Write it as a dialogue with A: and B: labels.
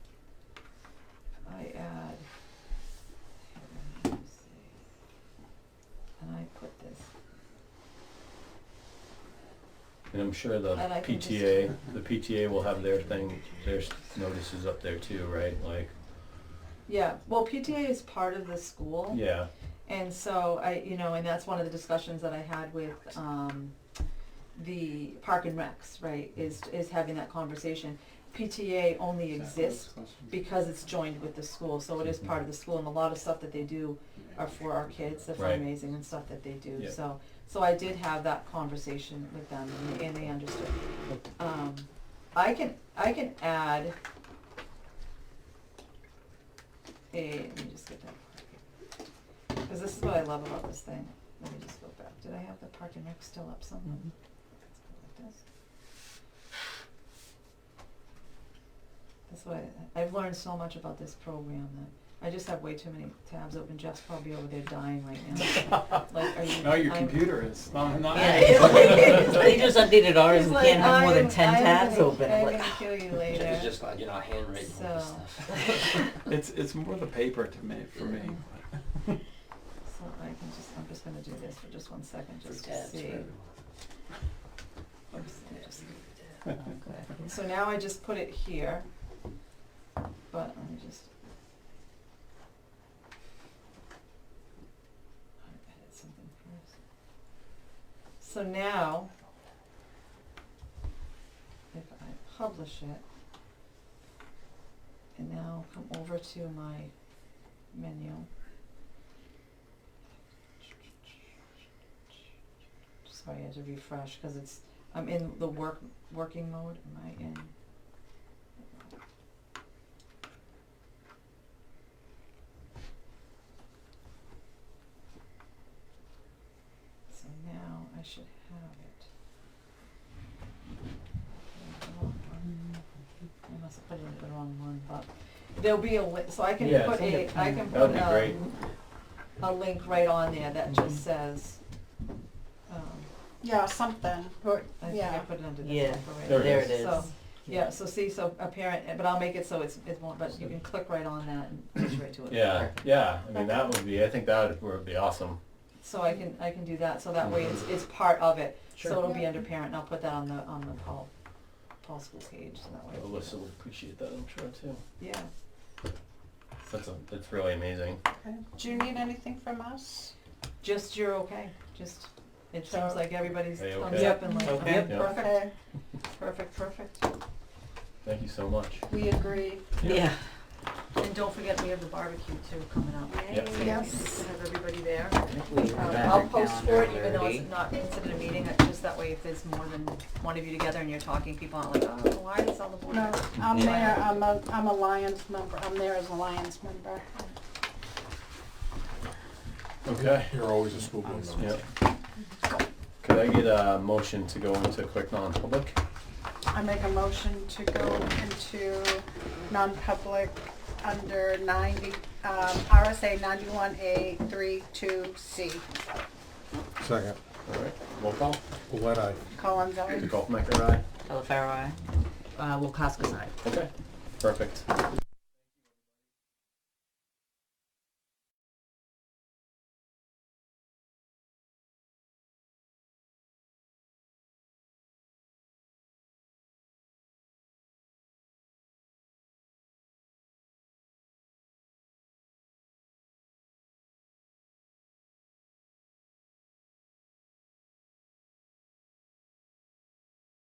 A: I'm sure the
B: I like them just-
A: PTA, the PTA will have their thing, their notices up there too, right? Like,
B: Yeah, well, PTA is part of the school,
A: yeah,
B: and so I, you know, and that's one of the discussions that I had with, um, the Park and Recs, right, is, is having that conversation. PTA only exists because it's joined with the school, so it is part of the school, and a lot of stuff that they do are for our kids, the
A: Right.
B: fundraising and stuff that they do,
A: Yeah.
B: so, so I did have that conversation with them, and they- and they understood. Um, I can, I can add a, let me just get that. Cause this is what I love about this thing, let me just go back, did I have the park and rec still up somewhere?
C: Mm-hmm.
B: Let's go like this. That's why, I've learned so much about this program that, I just have way too many tabs open, Jeff's probably over there dying right now. Like, are you?
D: No, your
B: I'm-
D: computer is, not, not.
B: Yeah, it's like-
C: They just updated ours
B: He's
C: and
B: like,
C: can't have more than
B: I'm-
C: ten
B: I'm
C: tabs
B: gonna-
C: open.
B: I'm
C: I'm like,
B: gonna kill you
E: It's
B: later.
E: just like, you know, handwriting all this
B: So-
E: stuff.
D: It's, it's more the paper to me, for me.
B: So I can just, I'm just gonna do this for just one second, just to
E: Tabs for
B: see.
E: everyone.
B: Oops, I just- okay. So now I just put it here, but let me just. I edit something first. So now, if I publish it, and now come over to my menu. Sorry, I had to refresh, cause it's, I'm in the work, working mode, am I in? So now I should have it. Did I put the wrong one? I must have put in the wrong one, but there'll be a li- so I can
A: Yeah,
B: put
A: it's
C: in
B: a,
C: the
B: I
C: plan.
B: can
A: that would
B: put
A: be
B: a,
A: great.
B: Um, a link right on there that
C: Mhm.
B: just says, um,
F: Yeah, something, or,
B: I think I
F: yeah.
B: put it under this
C: Yeah.
B: one for right
A: There it
C: there
A: is.
C: it is.
B: So, Yeah, so see, so a parent, but I'll make it so it's, it won't, but you can click right on that and push right to it.
A: yeah,
C: Perfect.
A: yeah. I mean, that would be, I think that would- would be awesome.
B: So I can, I can do that, so that way it's, it's part of it, so
C: Sure.
B: it'll be under parent, and I'll put that on the, on the Paul, Paul School page, so that way.
A: Alyssa would appreciate that, I'm sure too.
B: Yeah,
A: That's, a- that's really amazing.
F: Okay. Do you need anything from us?
B: just you're okay, just, it
F: So-
B: seems like everybody's
A: Hey,
B: thumbs
A: okay.
B: up and like,
D: Okay.
B: okay,
A: Yeah.
B: perfect, perfect, perfect.
A: Thank you so much.
F: We agree.
C: Yeah,
B: And don't forget, we have the barbecue too coming up.
A: Yep.
B: So
F: Yes.
B: we Have everybody there.
C: we
B: Um, I'll post for it, even though it's not considered a meeting, uh, just that way if there's more than one of you together and you're talking, people aren't like, oh, why is all the board?
F: No, I'm
C: Yeah.
F: there, I'm a, I'm a Lions member, I'm there as a Lions member.
A: Okay.
G: You're always a school board member.
A: Yep. Could I get a motion to go into quick non-public?
F: I make a motion to go into non-public under ninety, um, RSA ninety-one A three two C.
G: Second,
A: All right, roll call.
G: Glenn, I.
F: Collins, aye.
A: Golf maker, aye.
C: Elefaro, aye. Uh, Wilcoxcas, aye.
A: Okay, perfect.